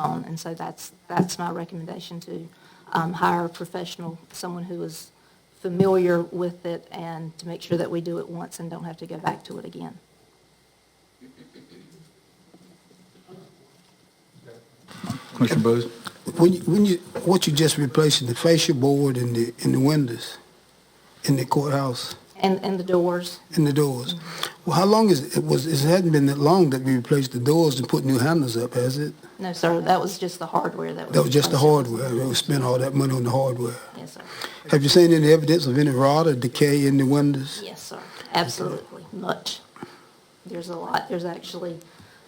on. And so that's, that's my recommendation to um, hire a professional, someone who is familiar with it and to make sure that we do it once and don't have to go back to it again. Commissioner Bose? When you, when you, what you just replacing, the fascia board and the, and the windows in the courthouse, And, and the doors, and the doors. Well, how long is, it was, it hadn't been that long that we replaced the doors and put new handles up, has it? no, sir, that was just the hardware that was. That was just the replaced. hardware. We spent all that money on the hardware. Yes, sir. Have you seen any evidence of any rot or decay in the windows? Yes, sir, absolutely, much. There's a lot, there's actually,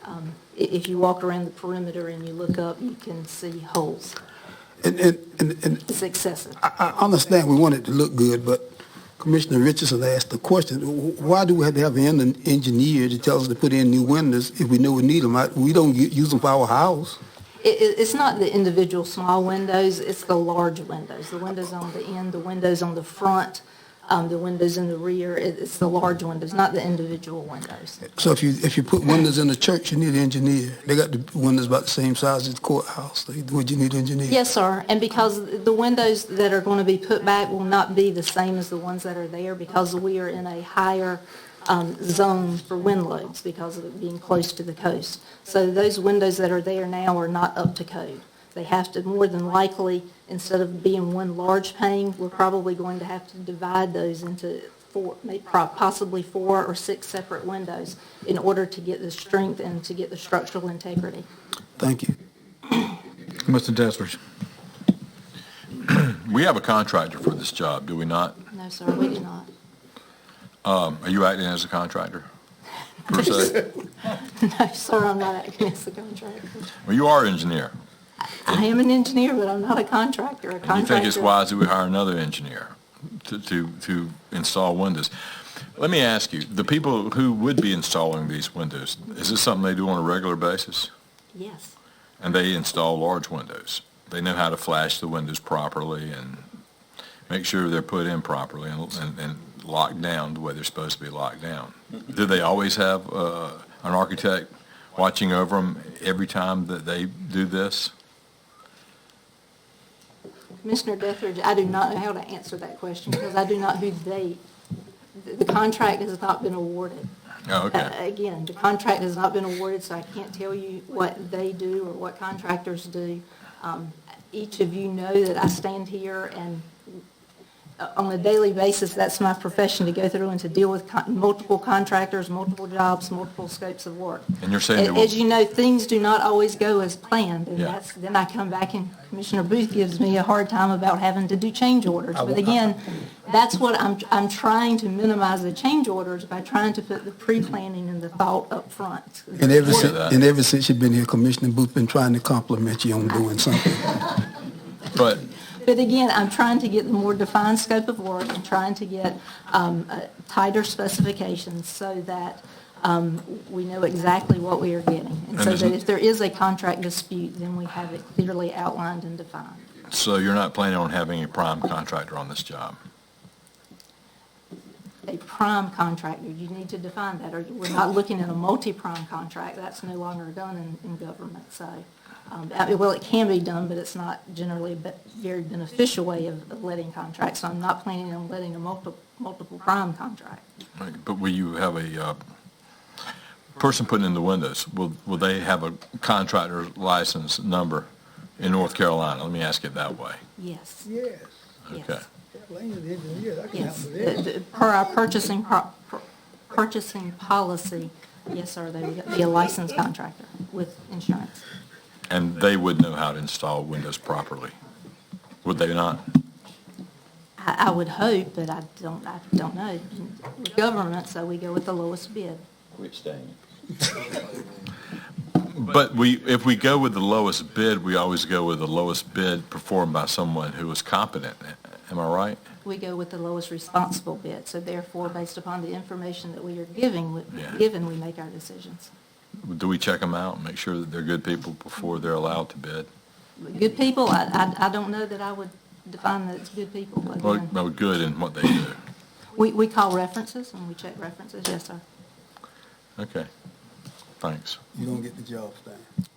um, i- if you walk around the perimeter and you look up, you can see holes. And, and, and, and It's excessive. I, I understand we want it to look good, but Commissioner Richardson asked the question, wh- why do we have to have an engineer to tell us to put in new windows if we know we need them? We don't u- use them for our house. It, it, it's not the individual small windows, it's the large windows, the windows on the end, the windows on the front, um, the windows in the rear, it, it's the large windows, not the individual windows. So if you, if you put windows in the church, you need an engineer. They got the windows about the same size as the courthouse. They- Would you need an engineer? Yes, sir, and because the windows that are going to be put back will not be the same as the ones that are there because we are in a higher um, zone for wind loads because of it being close to the coast. So those windows that are there now are not up to code. They have to, more than likely, instead of being one large pane, we're probably going to have to divide those into four, may- pro- possibly four or six separate windows in order to get the strength and to get the structural integrity. Thank you. Mr. Dethridge? We have a contractor for this job, do we not? No, sir, we do not. Are you acting as a contractor? Per se? No, sir, I'm not acting as a contractor. Well, you are an engineer. I am an engineer, but I'm not a contractor. A You think it's contractor- wise that we hire another engineer to, to, to install windows? Let me ask you, the people who would be installing these windows, is this something they do on a regular basis? Yes, And they install large windows. They know how to flash the windows properly and make sure they're put in properly and, and, and locked down the way they're supposed to be locked down. Do they always have uh, an architect watching over them every time that they do this? Commissioner Dethridge, I do not know how to answer that question because I do not who they, the the contract has not been awarded. Uh, Oh, okay. Again, the contract has not been awarded, so I can't tell you what they do or what contractors do. Um, Each of you know that I stand here and uh, on a daily basis, that's my profession, to go through and to deal with con- multiple contractors, multiple jobs, multiple scopes of work. And you're saying they Uh, A- will- As you know, things do not always go as planned, and Yeah. that's, then I come back and Commissioner Booth gives me a hard time about having to do change orders. But again, that's what I'm, I'm trying to minimize the change orders by trying to put the pre-planning and the thought up front. And ever since, that. and ever since you've been here, Commissioner Booth been trying to compliment you on doing something. But But again, I'm trying to get the more defined scope of work and trying to get um, uh, tighter specifications so that um, we know exactly what we are getting. And so And that isn't- if there is a contract dispute, then we have it clearly outlined and defined. so you're not planning on having a prime contractor on this job? A prime contractor, you need to define that, or we're not looking at a multi-prime contract. That's no longer done in, in government, so. um, I mean, Well, it can be done, but it's not generally a be- very beneficial way of of letting contracts. So I'm not planning on letting a multiple, multiple prime contract. Right, But will you have a uh, person putting in the windows, will, will they have a contractor license number in North Carolina? Let me ask it that way. Yes, Yes, Okay. yes, Kathleen's an engineer, I can yes. handle this. The- the- Per our purchasing, pro- pur- purchasing policy, yes, sir, they would be a licensed contractor with insurance. And they would know how to install windows properly, would they not? I, I would hope, but I don't, I don't know. We're Government, so we go with the lowest bid. Quit staying. But we, if we go with the lowest bid, we always go with the lowest bid performed by someone who is competent. Am I right? We go with the lowest responsible bid. So therefore, based upon the information that we are giving, we- Yeah. given, we make our decisions. Do we check them out and make sure that they're good people before they're allowed to bid? Good people, I, I, I don't know that I would define that it's good people. but Well, again, no, good in what they do. We, we call references and we check references, yes, sir. Okay. Thanks. You don't get the job done.